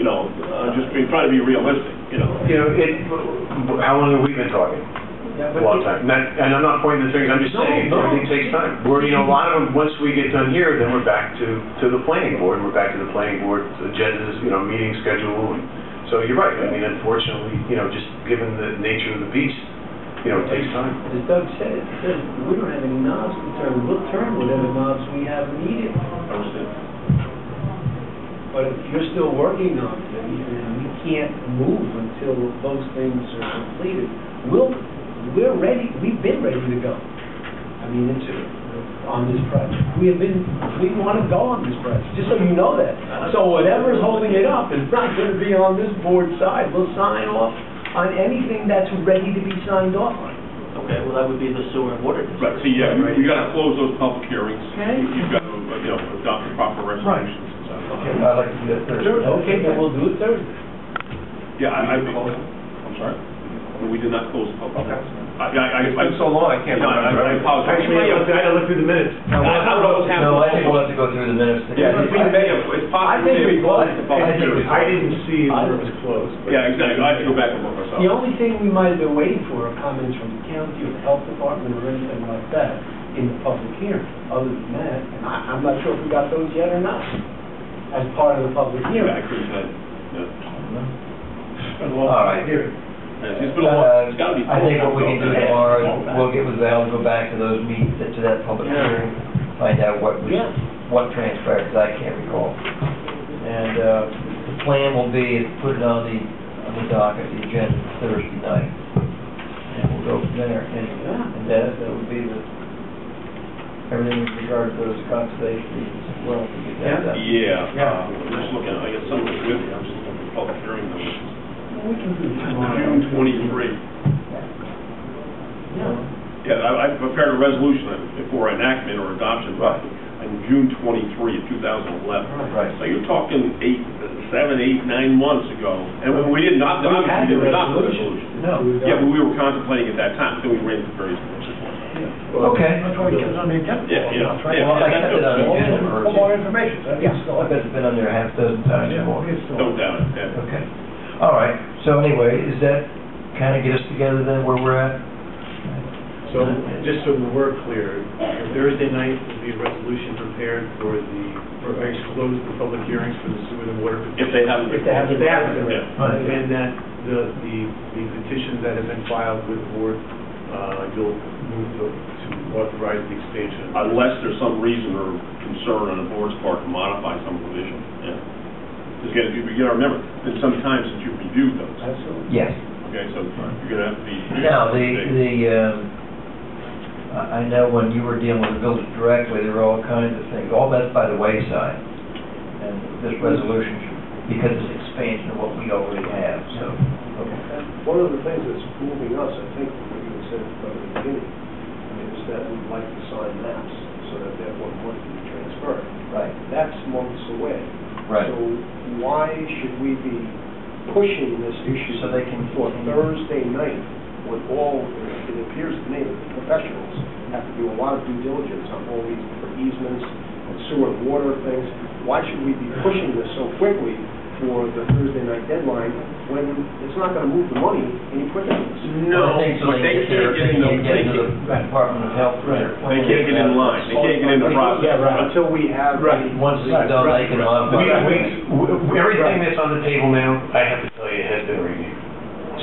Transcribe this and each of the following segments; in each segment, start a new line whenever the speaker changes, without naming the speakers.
uh, just, we try to be realistic, you know?
You know, it, how long have we been talking? A long time. Not- And I'm not pointing the finger, I'm just
No,
saying,
no.
everything takes time. We're, you know, a lot of them, once we get done here, then we're back to, to the planning board, we're back to the planning board, agendas, you know, meeting schedule. and- So you're right, I mean, unfortunately, you know, just given the nature of the beast, you know, it takes time.
As Doug said, it says, we don't have any knobs to turn, we'll turn whatever knobs we have needed. But if you're still working on things, and we can't move until those things are completed, we'll, we're ready, we've been ready to go. I mean, it's, on this project. We have been, we want to go on this project, just so you know that. So whatever's holding it up is not going to be on this board's side. We'll sign off on anything that's ready to be signed off on.
Okay, well, that would be the sewer and water
Right,
district.
so yeah, you- you gotta close those public hearings.
Okay.
You- You've got to, you know, adopt the proper resolutions and
I'd
stuff.
like to do that Thursday.
Okay, then we'll do it Thursday.
Yeah, I, I,
We can close it.
I'm sorry? We did not close the public.
Okay.
I, I, I.
It's been so long, I can't
No, I-
remember.
I apologize.
Actually, I had to- I had to look through the minutes.
I don't know what's happening.
No, I think we'll have to go through the minutes.
Yeah, we may have, it's
I
possible.
think we
closed
closed
the public hearing.
I didn't see where it was closed. but-
Yeah, exactly, I have to go back and look myself.
The only thing we might have been waiting for are comments from the county or the health department or anything like that in the public hearing. Other than that, and I, I'm not sure if we got those yet or not, as part of the public
Yeah, I
hearing.
couldn't, say. yeah.
All right.
It's been a long, it's gotta be.
I think what we can do
Yeah.
tomorrow, is we'll get with Val, go back to those meetings, to that public
Yeah.
hearing, find out what was,
Yeah.
what transpired, because I can't recall. And, uh, the plan will be, is put it on the, on the docket, the agenda Thursday night. And we'll go from there, and,
Yeah.
and that, that would be the, everything with regard to those conservation meetings, as well, to get that done.
Yeah, uh, I'm just looking, I guess some of it's with me, I'm just looking at the public hearing numbers.
We can do it tomorrow.
June twenty-three.
Yeah.
Yeah, I, I prepared a resolution for enactment or adoption, but on June twenty-three of two thousand eleven.
Right.
So you're talking eight, seven, eight, nine months ago, and we- we did not, obviously, we did not adopt the resolution.
No.
Yeah, but we were contemplating at that time, so we ran into various issues.
Okay.
Yeah, yeah. yeah,
Well, I
that's
kept it on the
no-
agenda for, I
information.
bet it's been on there a half dozen times or more.
No doubt, yeah.
Okay, all right, so anyway, is that kind of get us together then where we're at?
So, just so we're clear, Thursday night will be a resolution prepared for the, for, I guess, close the public hearings for the sewer and water.
If they haven't.
If they
If
haven't-
they haven't been
Yeah.
read. And that the, the the petitions that have been filed with the board, uh, you'll move to to authorize the expansion.
unless there's some reason or concern on the board's part to modify some provision, yeah. Just get, you gotta remember, it's some time since you've reviewed those,
Absolutely.
Yes.
okay, so you're gonna have to be.
Now, the, the, um, I I know when you were dealing with the village directly, there were all kinds of things, all that's by the wayside. And this resolution, should- because it's expansion of what we already have, so, okay.
One of the things that's moving us, I think, from what you had said from the beginning, is that we'd like to sign maps so that that one money can be transferred.
Right,
That's months away.
right.
So why should we be pushing this issue
So they can
for
continue.
Thursday night when all, it appears to me, that the professionals have to do a lot of due diligence on all these different easements, and sewer and water things? Why should we be pushing this so quickly for the Thursday night deadline when it's not going to move the money any quicker than this?
No, but they can't get in the,
They
they can't,
can't get into the Department of Health.
they can't get in line, they can't get in the process.
Yeah, right.
Until we have.
Right.
Once it's done, they can
We- Um,
modify.
we- we- Everything that's on the table now, I have to tell you, has been reviewed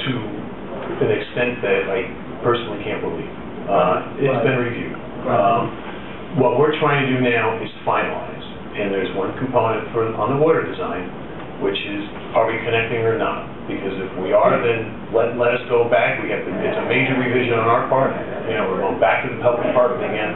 to an extent that I personally can't believe. Uh, It's been reviewed. Um, What we're trying to do now is finalize, and there's one component for, on the water design, which is, are we connecting or not? Because if we are, then let, let us go back, we have, to- it's a major revision on our part, you know, we're going back to the public department again,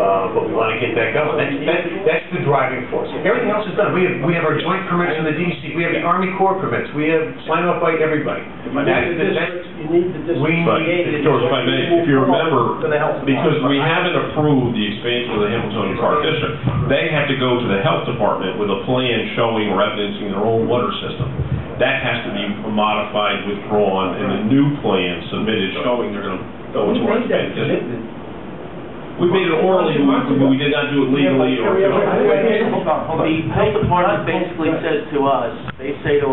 uh, but we want to get that going. That's, that- that's the driving force. Everything else is done, we have, we have our joint permits from the DEC, we have the Army Corps permits, we have signed off by everybody. That's- that's-
You need the district.
We
But,
need.
George, if I may, if you remember,
To the health department.
because we haven't approved the expansion of the Hamiltonian Park District, they have to go to the health department with a plan showing or evidencing their own water system. That has to be modified, withdrawn, and a new plan submitted showing they're gonna go
We
into our
made that
expansion district.
commitment.
We made it orally, we, we did not do it legally or.
Yeah, but-
The health department basically says to us, they say to